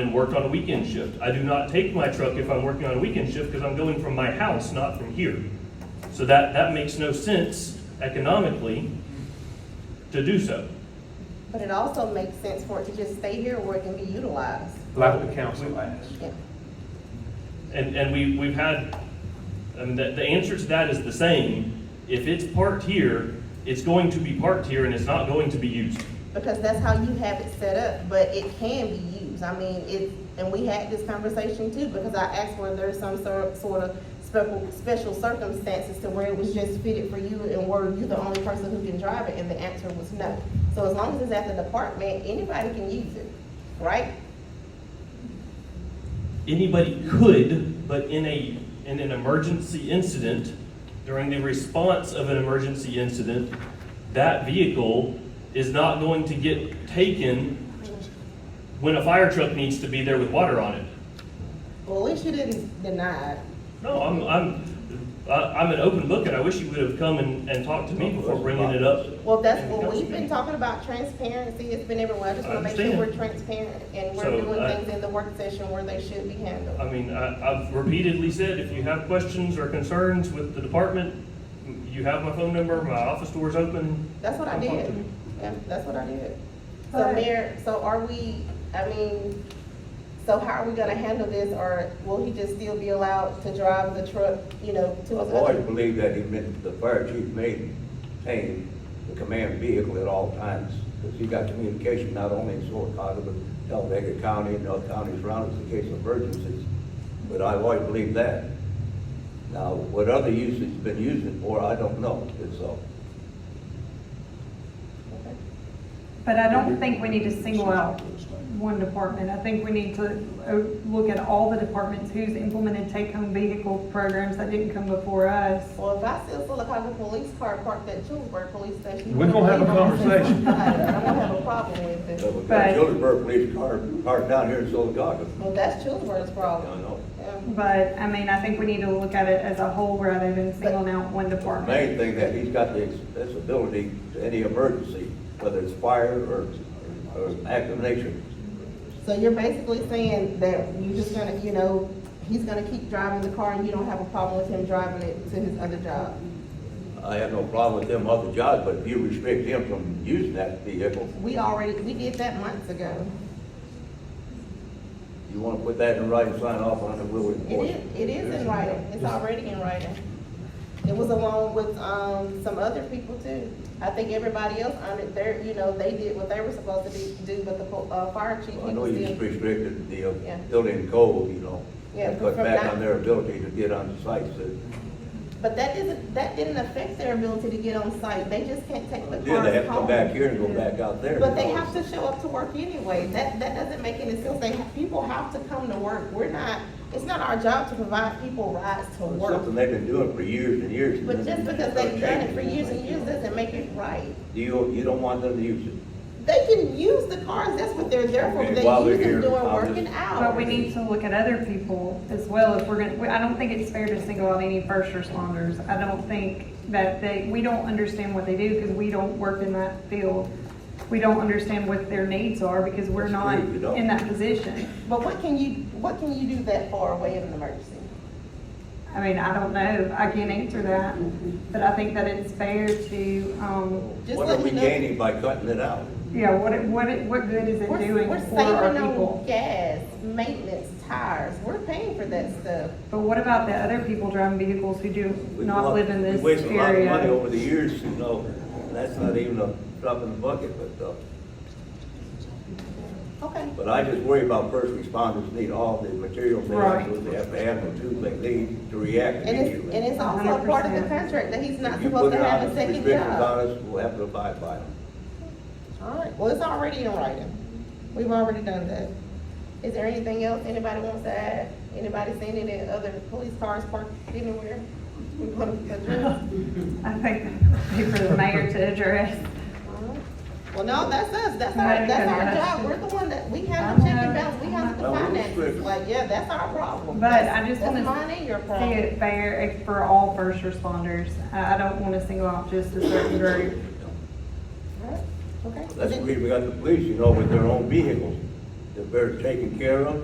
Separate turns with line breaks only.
and worked on a weekend shift. I do not take my truck if I'm working on a weekend shift because I'm going from my house, not from here. So that, that makes no sense economically to do so.
But it also makes sense for it to just stay here where it can be utilized.
Like the council asked.
Yeah.
And, and we, we've had, I mean, the, the answer to that is the same. If it's parked here, it's going to be parked here and it's not going to be used.
Because that's how you have it set up, but it can be used. I mean, it, and we had this conversation too, because I asked whether there's some sort, sort of special, special circumstances to where it was just fitted for you and were you the only person who can drive it, and the answer was no. So as long as it's at the department, anybody can use it, right?
Anybody could, but in a, in an emergency incident, during the response of an emergency incident, that vehicle is not going to get taken when a fire truck needs to be there with water on it.
Well, at least you didn't deny it.
No, I'm, I'm, I- I'm an open book and I wish you would have come and, and talked to me before bringing it up.
Well, that's what we've been talking about, transparency, it's been everywhere, I just wanna make sure
I
we're
understand.
transparent and we're
So,
doing
I-
things in the work session where they should be handled.
I mean, I, I've repeatedly said, if you have questions or concerns with the department, you have my phone number, my office door's open.
That's what I
Come talk to
did,
me.
yeah, that's what I did. So
Alright.
Mayor, so are we, I mean, so how are we gonna handle this, or will he just still be allowed to drive the truck, you know, to
I've
his
always
other?
believed that he meant the fire chief may maintain the command vehicle at all times, because he got communication not only in Solocaga, but Talladega County and other counties around us in case of emergencies. But I've always believed that. Now, what other use it's been used it for, I don't know, it's, uh,
Okay.
But I don't think we need to single out one department. I think we need to uh, look at all the departments who's implemented take-home vehicle programs that didn't come before us.
Well, if I see a Silicotta police car parked at Julesburg Police Station.
We're gonna have a conversation.
I'm gonna have a problem with
uh,
it,
we've got
But-
Gilderberg Police Car, parked down here in Solocaga.
well, that's Julesburg's
I
problem.
don't know.
Yeah.
But, I mean, I think we need to look at it as a whole rather than singling out one
The
department.
main thing that he's got the accessibility to any emergency, whether it's fire or, or acclimation.
So you're basically saying that you're just gonna, you know, he's gonna keep driving the car and you don't have a problem with him driving it to his other job?
I have no problem with them other jobs, but if you restrict him from using that vehicle,
We already, we did that months ago.
you want to put that in writing, sign off on it, we'll
It
enforce it.
is, it is in writing, it's already in writing. It was along with, um, some other people too. I think everybody else on it, they're, you know, they did what they were supposed to be, do, but the, po- uh, fire chief, he
I know
was
you just
still.
restricted the uh,
Yeah.
building code, you know,
Yeah,
and cut
from
back
that-
on their ability to get on the sites. Did
But that isn't, that didn't affect their ability to get on site, they just can't take the car
they have to come
home.
back here and go back out there?
But they have to show up to work anyway. That, that doesn't make any sense. They, people have to come to work. We're not, it's not our job to provide people rides to
It's
work.
Something they've been doing for years and years.
But just because they've done it for years and years doesn't make it right.
Do you, you don't want them to use it?
They can use the cars, that's what they're there for.
Okay,
They
while they're
use them
here,
during
I'll
working
just-
hours.
But we need to look at other people as well if we're gonna, we- I don't think it's fair to single out any first responders. I don't think that they, we don't understand what they do because we don't work in that field. We don't understand what their needs are because we're
That's
not
true, we don't.
in that position.
But what can you, what can you do that far away in an emergency?
I mean, I don't know, I can't answer that, but I think that it's fair to, um,
Just
What
let
are we
me know.
gaining by cutting it out?
yeah, what, it- what, it- what good is it
We're,
doing
we're
for our
saving on
people?
gas, maintenance, tires. We're paying for that stuff.
But what about the other people driving vehicles who do
We
not
wa-
live in this
We waste a lot of money
area?
over the years, you know, and that's not even a drop in the bucket, but, uh,
Okay.
but I just worry about first responders need all the materials they have,
Right.
so they have to have the tools they need to react
And it's, and
immediately.
it's also a part of the
100%.
contract that he's not
If you
supposed
put
to
it on
have
us,
a second
restrictions
job.
on us, we'll have to abide by them.
Alright, well, it's already in writing. We've already done that. Is there anything else anybody wants to add? Anybody seen any other police cars parked anywhere? We want to address?
I think that would be for the mayor to address.
Alright. Well, no, that's us, that's our,
Right,
that's our
because that's-
job, we're the one that, we have the check and balance, we have the
Well, we're
finances,
strict.
like, yeah, that's our problem.
But
That's-
I just
that's
wanna
mine and your
See
problem.
it fair eh, for all first responders. I, I don't want to single out just a certain group.
Alright, Okay.
That's the reason we got the police, you know, with their own vehicles. that they're taking care of.